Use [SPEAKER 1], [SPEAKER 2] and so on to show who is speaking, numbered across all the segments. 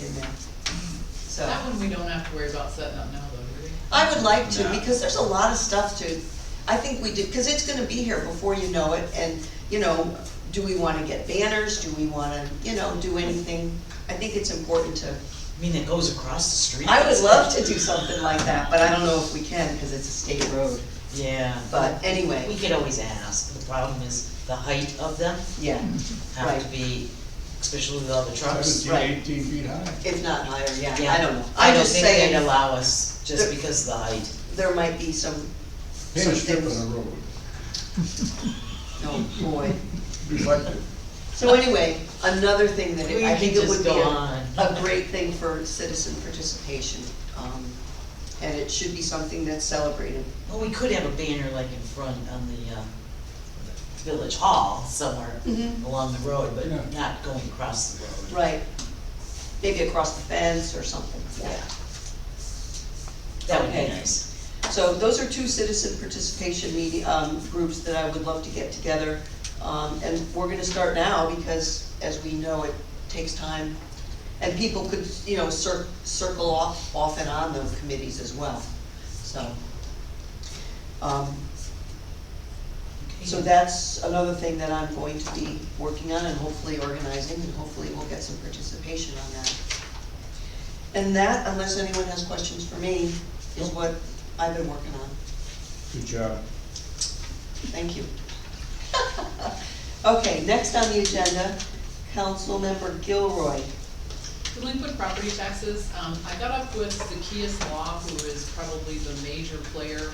[SPEAKER 1] in there. So,
[SPEAKER 2] That one we don't have to worry about setting up now, though, do we?
[SPEAKER 1] I would like to,
[SPEAKER 3] No.
[SPEAKER 1] because there's a lot of stuff to, I think we did, because it's gonna be here before you know it, and, you know, do we wanna get banners, do we wanna, you know, do anything? I think it's important to,
[SPEAKER 3] I mean, it goes across the street.
[SPEAKER 1] I would love to do something like that, but I don't know if we can, because it's a state road,
[SPEAKER 3] Yeah.
[SPEAKER 1] but
[SPEAKER 3] We
[SPEAKER 1] anyway,
[SPEAKER 3] could always ask, the problem is the height of them
[SPEAKER 1] yeah,
[SPEAKER 3] have to
[SPEAKER 1] Right.
[SPEAKER 3] be, especially with all the trucks.
[SPEAKER 1] right.
[SPEAKER 4] Seventeen, eighteen feet high.
[SPEAKER 1] if not higher, yeah,
[SPEAKER 3] Yeah.
[SPEAKER 1] I don't know.
[SPEAKER 3] I
[SPEAKER 1] I'm
[SPEAKER 3] don't
[SPEAKER 1] just
[SPEAKER 3] think they'd
[SPEAKER 1] saying,
[SPEAKER 3] allow us just
[SPEAKER 1] The-
[SPEAKER 3] because of the height.
[SPEAKER 1] there might be some,
[SPEAKER 4] Paint
[SPEAKER 1] some
[SPEAKER 4] a strip on
[SPEAKER 1] things,
[SPEAKER 4] the road,
[SPEAKER 1] oh boy.
[SPEAKER 4] reflective.
[SPEAKER 1] So anyway, another thing that, it-
[SPEAKER 3] We
[SPEAKER 1] I
[SPEAKER 3] could
[SPEAKER 1] think it
[SPEAKER 3] just
[SPEAKER 1] would be
[SPEAKER 3] go
[SPEAKER 1] a,
[SPEAKER 3] on.
[SPEAKER 1] a great thing for citizen participation. um, And it should be something that's celebrated.
[SPEAKER 3] Well, we could have a banner like in front on the, uh, village hall somewhere
[SPEAKER 1] Mhm.
[SPEAKER 3] along the road, but
[SPEAKER 4] Yeah.
[SPEAKER 3] not going across the road.
[SPEAKER 1] Right. Maybe across the fence or something.
[SPEAKER 3] That would be
[SPEAKER 1] Okay.
[SPEAKER 3] nice.
[SPEAKER 1] So those are two citizen participation meeting, um, groups that I would love to get together. Um, and we're gonna start now because, as we know, it takes time. And people could, you know, cir- circle off, off and on those committees as well, so. Um,
[SPEAKER 3] Okay.
[SPEAKER 1] So that's another thing that I'm going to be working on and hopefully organizing, and hopefully we'll get some participation on that. And that, unless anyone has questions for me, is what I've been working on.
[SPEAKER 4] Good job.
[SPEAKER 1] Thank you. Okay, next on the agenda, Councilmember Gilroy.
[SPEAKER 2] Delinquent property taxes, um, I got up with Zacchaeus Law, who is probably the major player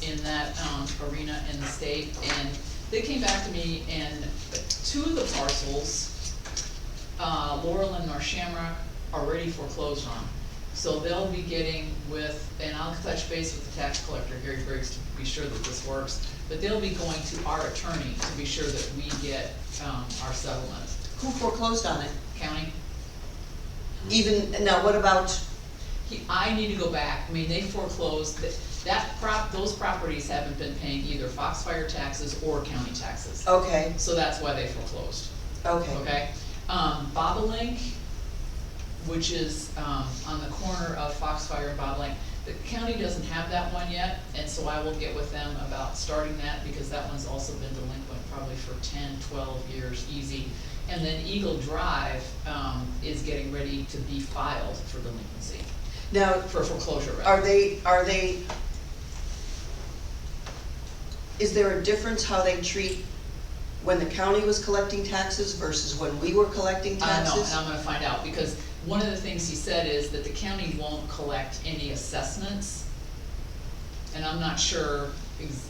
[SPEAKER 2] in that, um, arena in the state, and they came back to me and two of the parcels, uh, Laurel and North Shamrock already foreclosed on. So they'll be getting with, and I'll touch base with the tax collector, Gary Briggs, to be sure that this works, but they'll be going to our attorney to be sure that we get, um, our settlement.
[SPEAKER 1] Who foreclosed on it?
[SPEAKER 2] County,
[SPEAKER 1] Even, now what about,
[SPEAKER 2] He, I need to go back, I mean, they foreclosed, that, that prop, those properties haven't been paying either Foxfire taxes or county taxes.
[SPEAKER 1] okay,
[SPEAKER 2] So that's why they foreclosed,
[SPEAKER 1] okay,
[SPEAKER 2] okay? Um, Bobolink, which is, um, on the corner of Foxfire and Bobolink, the county doesn't have that one yet, and so I will get with them about starting that, because that one's also been delinquent probably for 10, 12 years, easy. And then Eagle Drive, um, is getting ready to be filed for delinquency
[SPEAKER 1] now,
[SPEAKER 2] for foreclosure,
[SPEAKER 1] Are
[SPEAKER 2] right?
[SPEAKER 1] they, are they, is there a difference how they treat when the county was collecting taxes versus when we were collecting
[SPEAKER 2] Uh, I don't know, and
[SPEAKER 1] taxes?
[SPEAKER 2] I'm gonna find out, because one of the things he said is that the county won't collect any assessments. And I'm not sure, ex-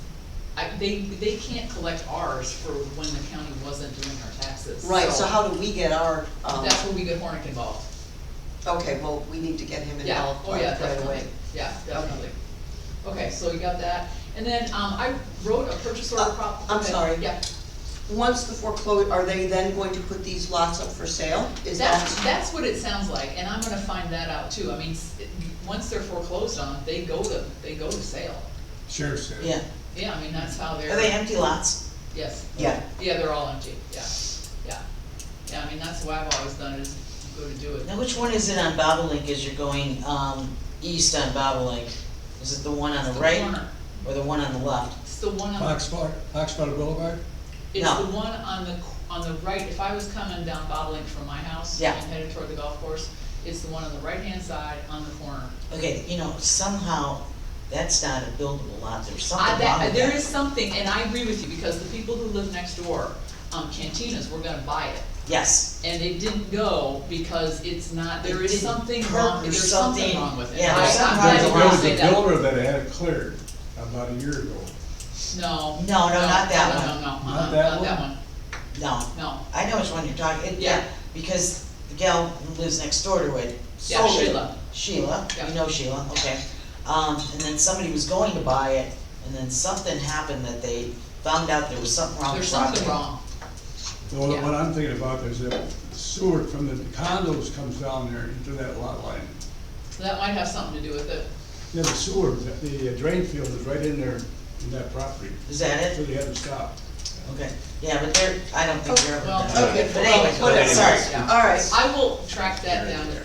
[SPEAKER 2] I, they, they can't collect ours for when the county wasn't doing our taxes.
[SPEAKER 1] Right, so how do we get our, um,
[SPEAKER 2] That's when we get Hornick involved.
[SPEAKER 1] okay, well, we need to get him
[SPEAKER 2] Yeah,
[SPEAKER 1] involved
[SPEAKER 2] oh yeah,
[SPEAKER 1] right away.
[SPEAKER 2] definitely, yeah, definitely. Okay, so you got that, and then, um, I wrote a purchase order
[SPEAKER 1] Uh,
[SPEAKER 2] prop.
[SPEAKER 1] I'm
[SPEAKER 2] okay,
[SPEAKER 1] sorry.
[SPEAKER 2] Yeah,
[SPEAKER 1] Once the foreclosure, are they then going to put these lots up for sale? Is
[SPEAKER 2] That's,
[SPEAKER 1] that,
[SPEAKER 2] that's what it sounds like, and I'm gonna find that out too, I mean, s- it- once they're foreclosed on, they go to, they go to sale.
[SPEAKER 4] Sheriff said.
[SPEAKER 3] Yeah,
[SPEAKER 2] Yeah, I mean, that's how
[SPEAKER 3] are they
[SPEAKER 2] they're,
[SPEAKER 3] empty lots?
[SPEAKER 2] yes,
[SPEAKER 1] yeah,
[SPEAKER 2] yeah, they're all empty, yeah, yeah. Yeah, I mean, that's why I've always done it, is go to do it.
[SPEAKER 3] Now, which one is it on Bobolink as you're going, um, east on Bobolink? Is it the one on
[SPEAKER 2] It's
[SPEAKER 3] the
[SPEAKER 2] the
[SPEAKER 3] right
[SPEAKER 2] corner.
[SPEAKER 3] or the one on the left?
[SPEAKER 2] It's the one on,
[SPEAKER 4] Foxfire, Foxfire Boulevard?
[SPEAKER 2] it's
[SPEAKER 3] No.
[SPEAKER 2] the one on the, c- on the right, if I was coming down Bobolink from my house
[SPEAKER 3] Yeah.
[SPEAKER 2] and headed toward the golf course, it's the one on the right-hand side on the corner.
[SPEAKER 3] Okay, you know, somehow, that's not a buildable lot, there's something
[SPEAKER 2] I,
[SPEAKER 3] wrong with
[SPEAKER 2] that,
[SPEAKER 3] that.
[SPEAKER 2] there is something, and I agree with you, because the people who live next door, um, cantinas, were gonna buy it.
[SPEAKER 3] Yes,
[SPEAKER 2] and it didn't go because it's not, there
[SPEAKER 3] It
[SPEAKER 2] is
[SPEAKER 3] didn't
[SPEAKER 2] something
[SPEAKER 3] perk
[SPEAKER 2] wrong,
[SPEAKER 3] or
[SPEAKER 2] there's something
[SPEAKER 3] something.
[SPEAKER 2] wrong with it.
[SPEAKER 3] Yeah, there's
[SPEAKER 2] I- I'm
[SPEAKER 3] something
[SPEAKER 2] glad
[SPEAKER 3] wrong
[SPEAKER 2] you didn't
[SPEAKER 3] with it.
[SPEAKER 4] There was
[SPEAKER 2] say
[SPEAKER 4] a
[SPEAKER 2] that.
[SPEAKER 4] builder that had it cleared about a year ago.
[SPEAKER 2] No.
[SPEAKER 3] No, no, not that
[SPEAKER 2] no,
[SPEAKER 3] one.
[SPEAKER 2] No, no, no,
[SPEAKER 4] Not
[SPEAKER 2] uh-uh,
[SPEAKER 4] that
[SPEAKER 2] not that
[SPEAKER 4] one?
[SPEAKER 2] one,
[SPEAKER 3] no,
[SPEAKER 2] no.
[SPEAKER 3] I know which one you're talking, it-
[SPEAKER 2] Yeah.
[SPEAKER 3] yeah, because the gal who lives next door to it
[SPEAKER 2] Yeah,
[SPEAKER 3] sold it.
[SPEAKER 2] Sheila.
[SPEAKER 3] Sheila,
[SPEAKER 2] Yeah.
[SPEAKER 3] you know Sheila, okay. Um, and then somebody was going to buy it, and then something happened that they found out there was something wrong with
[SPEAKER 2] There's
[SPEAKER 3] the property.
[SPEAKER 2] something wrong.
[SPEAKER 4] So what I'm thinking about is that sewer from the condos comes down there into that lot line.
[SPEAKER 2] So that might have something to do with it.
[SPEAKER 4] Yeah, the sewer, the the drain field is right in there in that property,
[SPEAKER 3] Is that
[SPEAKER 4] so
[SPEAKER 3] it?
[SPEAKER 4] they had to stop.
[SPEAKER 3] Okay, yeah, but they're, I don't think they're ever
[SPEAKER 2] Oh, Well,
[SPEAKER 3] done.
[SPEAKER 2] okay,
[SPEAKER 3] But anyway,
[SPEAKER 1] well, whatever.
[SPEAKER 3] sorry.
[SPEAKER 2] Yeah.
[SPEAKER 1] all right.
[SPEAKER 2] I will track that down